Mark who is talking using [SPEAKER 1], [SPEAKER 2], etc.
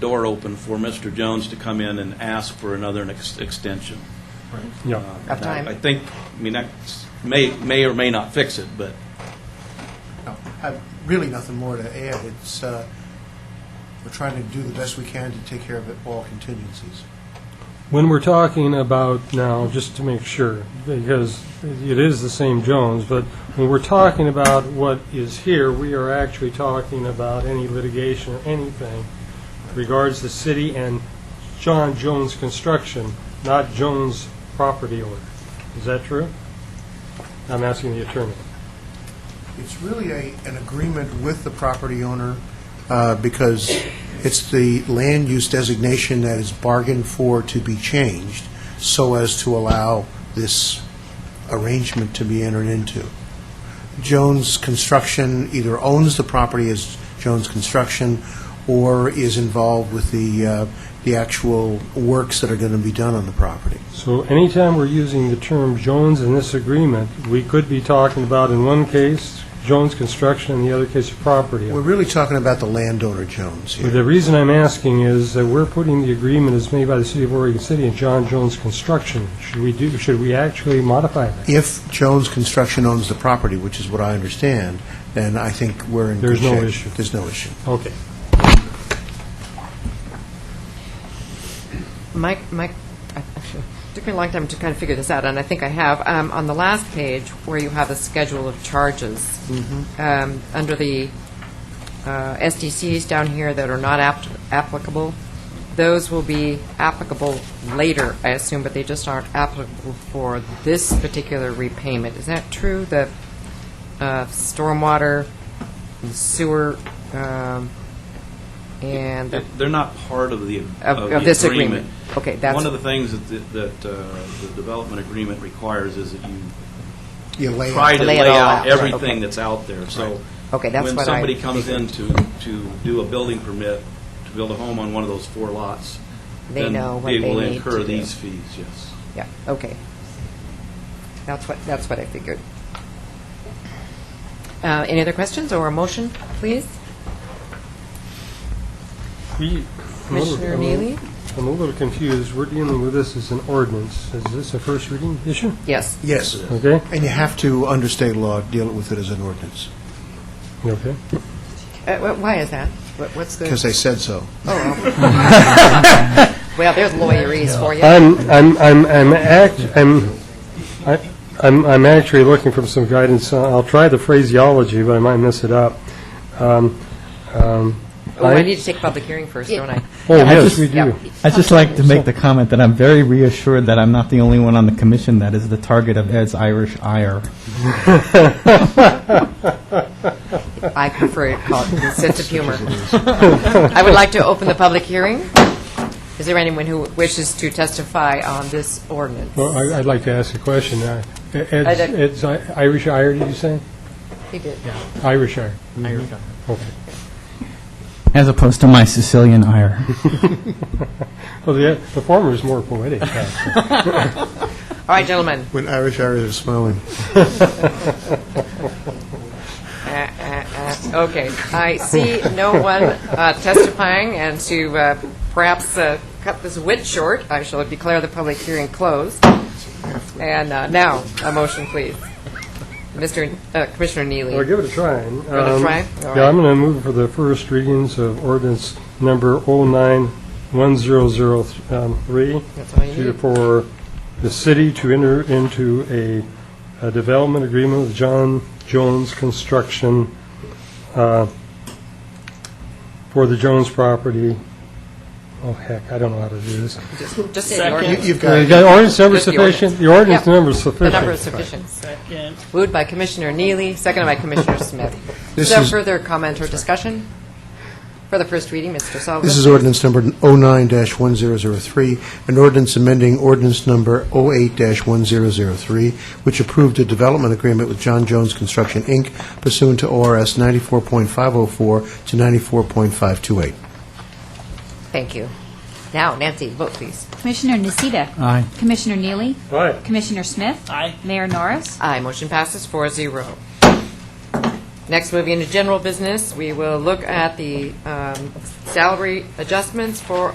[SPEAKER 1] door open for Mr. Jones to come in and ask for another ex- extension.
[SPEAKER 2] Yeah,
[SPEAKER 1] Now,
[SPEAKER 3] time.
[SPEAKER 1] I think, I mean, that may, may or may not fix it, but
[SPEAKER 4] No, I've really nothing more to add. It's, uh, we're trying to do the best we can to take care of all contingencies.
[SPEAKER 2] when we're talking about now, just to make sure, because it is the same Jones, but when we're talking about what is here, we are actually talking about any litigation or anything regards the city and John Jones Construction, not Jones property owner. Is that true? I'm asking the attorney.
[SPEAKER 4] It's really a, an agreement with the property owner uh, because it's the land use designation that is bargained for to be changed so as to allow this arrangement to be entered into. Jones Construction either owns the property as Jones Construction or is involved with the, uh, the actual works that are going to be done on the property.
[SPEAKER 2] So anytime we're using the term Jones in this agreement, we could be talking about in one case, Jones Construction, in the other case, property owner.
[SPEAKER 4] We're really talking about the landowner Jones here.
[SPEAKER 2] But The reason I'm asking is that we're putting the agreement as made by the City of Oregon City and John Jones Construction. Should we do, should we actually modify that?
[SPEAKER 4] If Jones Construction owns the property, which is what I understand, then I think we're in good
[SPEAKER 2] There's no
[SPEAKER 4] shape.
[SPEAKER 2] issue.
[SPEAKER 4] There's no issue.
[SPEAKER 2] Okay.
[SPEAKER 3] Mike, Mike, it took me a long time to kind of figure this out, and I think I have. Um, On the last page, where you have a schedule of charges, um, under the uh, SDCs down here that are not apt- applicable, those will be applicable later, I assume, but they just aren't applicable for this particular repayment. Is that true, the uh, stormwater, and sewer, um, and the
[SPEAKER 1] They're not part of the,
[SPEAKER 3] Of-
[SPEAKER 1] of
[SPEAKER 3] of
[SPEAKER 1] the
[SPEAKER 3] this
[SPEAKER 1] agreement.
[SPEAKER 3] agreement. Okay, that's-
[SPEAKER 1] One of the things that, the- that uh, the development agreement requires is that you
[SPEAKER 4] You lay
[SPEAKER 1] try
[SPEAKER 4] out.
[SPEAKER 1] to
[SPEAKER 3] Lay
[SPEAKER 1] lay
[SPEAKER 3] it all out,
[SPEAKER 1] out
[SPEAKER 3] right,
[SPEAKER 1] everything
[SPEAKER 3] okay.
[SPEAKER 1] that's out there, so.
[SPEAKER 3] Okay, that's what I
[SPEAKER 1] When somebody comes in to, to do a building permit, to build a home on one of those four lots.
[SPEAKER 3] They
[SPEAKER 1] then
[SPEAKER 3] know what they
[SPEAKER 1] will
[SPEAKER 3] need
[SPEAKER 1] incur
[SPEAKER 3] to do.
[SPEAKER 1] these fees, yes.
[SPEAKER 3] Yeah, okay. That's what, that's what I figured. Uh, Any other questions or a motion, please?
[SPEAKER 2] We- I'm a little-
[SPEAKER 3] Commissioner Neely?
[SPEAKER 2] I'm a little confused. We're dealing with this as an ordinance. Is this a first reading issue?
[SPEAKER 3] Yes.
[SPEAKER 4] Yes,
[SPEAKER 2] Okay?
[SPEAKER 4] and you have to, under state law, deal with it as an ordinance,
[SPEAKER 2] Okay.
[SPEAKER 3] Uh, wh- Why is that? What- What's the,
[SPEAKER 4] because they said so.
[SPEAKER 3] well, there's lawyerese for you.
[SPEAKER 2] I'm, I'm, I'm, I'm act, I'm, I- I'm, I'm actually looking for some guidance. Uh, I'll try the phraseology, but I might mess it up. Um, um,
[SPEAKER 3] Oh, I need to take public hearing first, don't I?
[SPEAKER 2] Oh, yes,
[SPEAKER 5] just-
[SPEAKER 2] we do.
[SPEAKER 3] Yeah.
[SPEAKER 5] I'd just like to make the comment that I'm very reassured that I'm not the only one on the commission that is the target of Ed's Irish ire.
[SPEAKER 3] I prefer it called sense of humor. I would like to open the public hearing. Is there anyone who wishes to testify on this ordinance?
[SPEAKER 2] Well, I- I'd like to ask a question. Uh, Ed's
[SPEAKER 3] don't-
[SPEAKER 2] Ed's I- Irish ire, did you say?
[SPEAKER 3] He did.
[SPEAKER 2] Irish ire. Okay.
[SPEAKER 5] As opposed to my Sicilian ire.
[SPEAKER 2] Well, the the former is more poetic. uh, actually.
[SPEAKER 3] All right, gentlemen.
[SPEAKER 4] When Irish Irish are smiling.
[SPEAKER 3] Uh, uh, uh, Okay, I see no one uh, testifying, and to uh, perhaps uh, cut this wit short, I shall declare the public hearing closed. And uh, now, a motion, please. Mr. uh, Commissioner
[SPEAKER 2] Well,
[SPEAKER 3] Neely.
[SPEAKER 2] give it a try. Um, You
[SPEAKER 3] a try?
[SPEAKER 2] Yeah,
[SPEAKER 3] All right.
[SPEAKER 2] I'm going to move for the first readings of ordinance number 091003
[SPEAKER 3] That's all you
[SPEAKER 2] to-
[SPEAKER 3] need.
[SPEAKER 2] for the city to enter into a- a development agreement with John Jones Construction uh, for the Jones property. Oh, heck, I don't know how to do this.
[SPEAKER 3] Just say the
[SPEAKER 4] You-
[SPEAKER 3] ordinance.
[SPEAKER 4] You've
[SPEAKER 2] Uh,
[SPEAKER 4] got,
[SPEAKER 2] The ordinance number
[SPEAKER 3] Just the
[SPEAKER 2] sufficient, the ordinance
[SPEAKER 3] Yep.
[SPEAKER 2] number is sufficient.
[SPEAKER 3] The number is sufficient. Moved by Commissioner Neely, seconded by Commissioner Smith. Is
[SPEAKER 4] This
[SPEAKER 3] there
[SPEAKER 4] is-
[SPEAKER 3] further comment or discussion? For the first reading, Mr. Sullivan.
[SPEAKER 4] this is ordinance number 09-1003, an ordinance amending ordinance number 08-1003, which approved a development agreement with John Jones Construction, Inc., pursuant to ORS 94.504 to 94.528.
[SPEAKER 3] Thank you. Now, Nancy, vote, please.
[SPEAKER 6] Commissioner Nocita.
[SPEAKER 5] Aye.
[SPEAKER 6] Commissioner Neely.
[SPEAKER 2] Aye.
[SPEAKER 6] Commissioner Smith. Aye. Mayor Norris.
[SPEAKER 3] Aye, motion passes 4-0. Next, moving into general business, we will look at the um, salary adjustments for